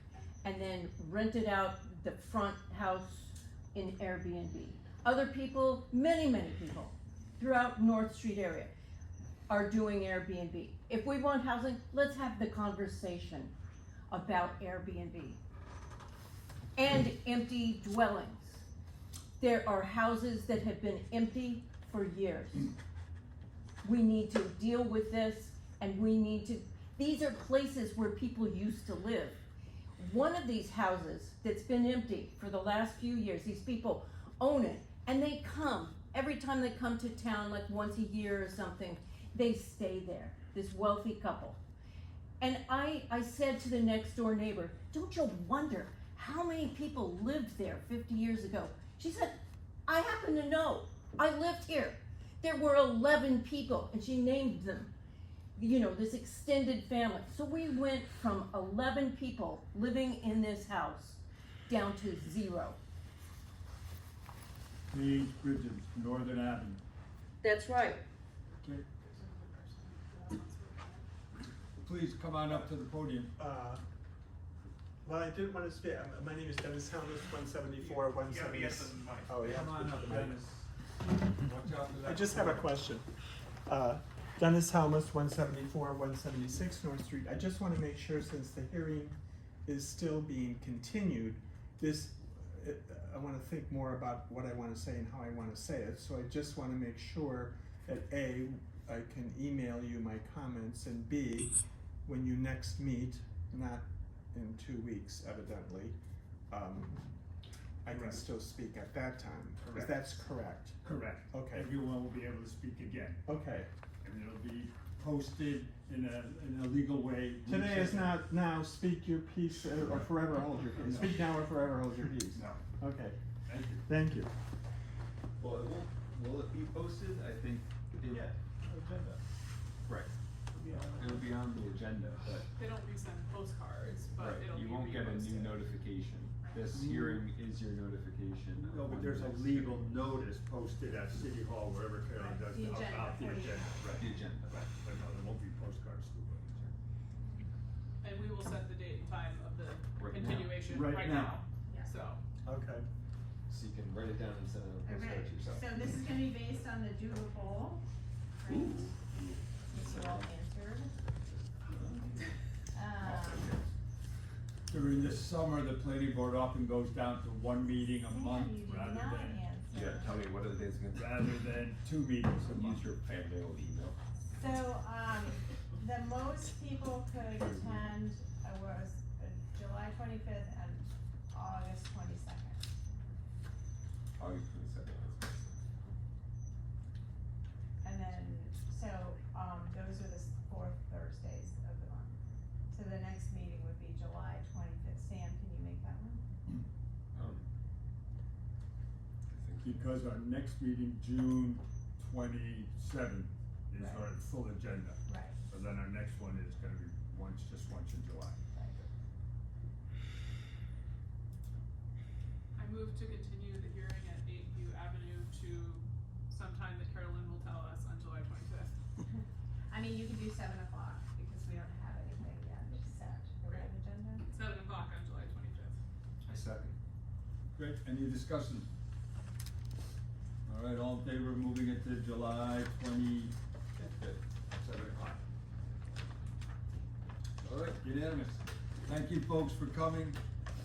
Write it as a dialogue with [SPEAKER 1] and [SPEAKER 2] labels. [SPEAKER 1] and then rented out the front house in Airbnb. Other people, many, many people throughout North Street area are doing Airbnb. If we want housing, let's have the conversation about Airbnb and empty dwellings. There are houses that have been empty for years. We need to deal with this and we need to, these are places where people used to live. One of these houses that's been empty for the last few years, these people own it and they come, every time they come to town, like once a year or something, they stay there, this wealthy couple. And I, I said to the next door neighbor, don't you wonder how many people lived there 50 years ago? She said, I happen to know. I lived here. There were 11 people, and she named them. You know, this extended family. So we went from 11 people living in this house down to zero.
[SPEAKER 2] These Bridges, Northern Avenue.
[SPEAKER 1] That's right.
[SPEAKER 2] Okay. Please come on up to the podium.
[SPEAKER 3] Uh, Well, I did want to speak, Uh, my name is Dennis Helmuth, one seventy-four, one
[SPEAKER 4] Yeah, but
[SPEAKER 3] seventy.
[SPEAKER 4] yes, this is mine.
[SPEAKER 3] Oh, yeah.
[SPEAKER 2] Come on up, Dennis. Watch out for that.
[SPEAKER 3] I just have a question. Uh, Dennis Helmuth, one seventy-four, one seventy-six North Street, I just want to make sure since the hearing is still being continued, this, uh, I want to think more about what I want to say and how I want to say it, so I just want to make sure that A, I can email you my comments, and B, when you next meet, not in two weeks evidently, um, I can
[SPEAKER 4] Correct.
[SPEAKER 3] still speak at that time, if
[SPEAKER 4] Correct.
[SPEAKER 3] that's correct,
[SPEAKER 2] Correct.
[SPEAKER 3] okay,
[SPEAKER 2] Everyone will be able to speak again,
[SPEAKER 3] okay.
[SPEAKER 2] and it'll be posted in a, in a legal way.
[SPEAKER 3] Today is not now, speak your peace uh, or forever hold your peace. Speak now or forever hold your peace.
[SPEAKER 2] No,
[SPEAKER 3] Okay,
[SPEAKER 2] thank you.
[SPEAKER 3] thank you.
[SPEAKER 5] Well, it will, will it be posted? I think it. Yeah. Agenda. Right. It'll be on the agenda, but,
[SPEAKER 6] They don't resend postcards,
[SPEAKER 5] right,
[SPEAKER 6] but it'll be reposted.
[SPEAKER 5] you won't get a new notification. This
[SPEAKER 2] Mm.
[SPEAKER 5] hearing is your notification.
[SPEAKER 4] Mm-hmm. No, but
[SPEAKER 5] on
[SPEAKER 4] there's
[SPEAKER 5] the
[SPEAKER 4] a
[SPEAKER 5] next-
[SPEAKER 4] legal notice posted at City Hall, wherever Carolyn does,
[SPEAKER 6] The agenda
[SPEAKER 4] about the
[SPEAKER 6] for the-
[SPEAKER 4] agenda, right?
[SPEAKER 5] The agenda.
[SPEAKER 4] Right, but no, there won't be postcards to the
[SPEAKER 6] And we will set the date and time of the
[SPEAKER 5] Right now.
[SPEAKER 6] continuation
[SPEAKER 4] Right
[SPEAKER 6] right now,
[SPEAKER 4] now.
[SPEAKER 7] Yeah.
[SPEAKER 6] so.
[SPEAKER 3] Okay.
[SPEAKER 5] So you can write it down and send it on
[SPEAKER 7] All right,
[SPEAKER 5] postcard to yourself.
[SPEAKER 7] so this is gonna be based on the doodle poll, right? These are all answered. Um,
[SPEAKER 2] During the summer, the planning board often goes down to one meeting a
[SPEAKER 7] yeah,
[SPEAKER 2] month
[SPEAKER 7] Um, you did
[SPEAKER 2] rather
[SPEAKER 7] not
[SPEAKER 2] than,
[SPEAKER 5] Yeah,
[SPEAKER 7] answer.
[SPEAKER 5] tell me what are the days gonna be?
[SPEAKER 2] rather than two meetings a month.
[SPEAKER 5] Use your family old email.
[SPEAKER 7] So, um, the most people could attend uh, was uh, July twenty-fifth and August twenty-second.
[SPEAKER 5] August twenty-second.
[SPEAKER 7] And then, so, um, those are the s- fourth Thursdays of the month. So the next meeting would be July twenty-fifth. Sam, can you make that one?
[SPEAKER 5] Um, I think-
[SPEAKER 2] because our next meeting, June twenty-seventh, is
[SPEAKER 7] Right.
[SPEAKER 2] our full agenda.
[SPEAKER 7] Right.
[SPEAKER 2] But then our next one is gonna be once, just once in July.
[SPEAKER 6] I move to continue the hearing at eight View Avenue to sometime that Carolyn will tell us on July twenty-fifth.
[SPEAKER 7] I mean, you can do seven o'clock because we don't have anything yet set for that agenda.
[SPEAKER 6] Seven o'clock on July twenty-fifth.
[SPEAKER 5] I second.
[SPEAKER 2] Great, any discussion? All right, all in favor of moving it to July twenty?
[SPEAKER 5] Good. Seven o'clock.
[SPEAKER 2] All right, unanimous. Thank you folks for coming,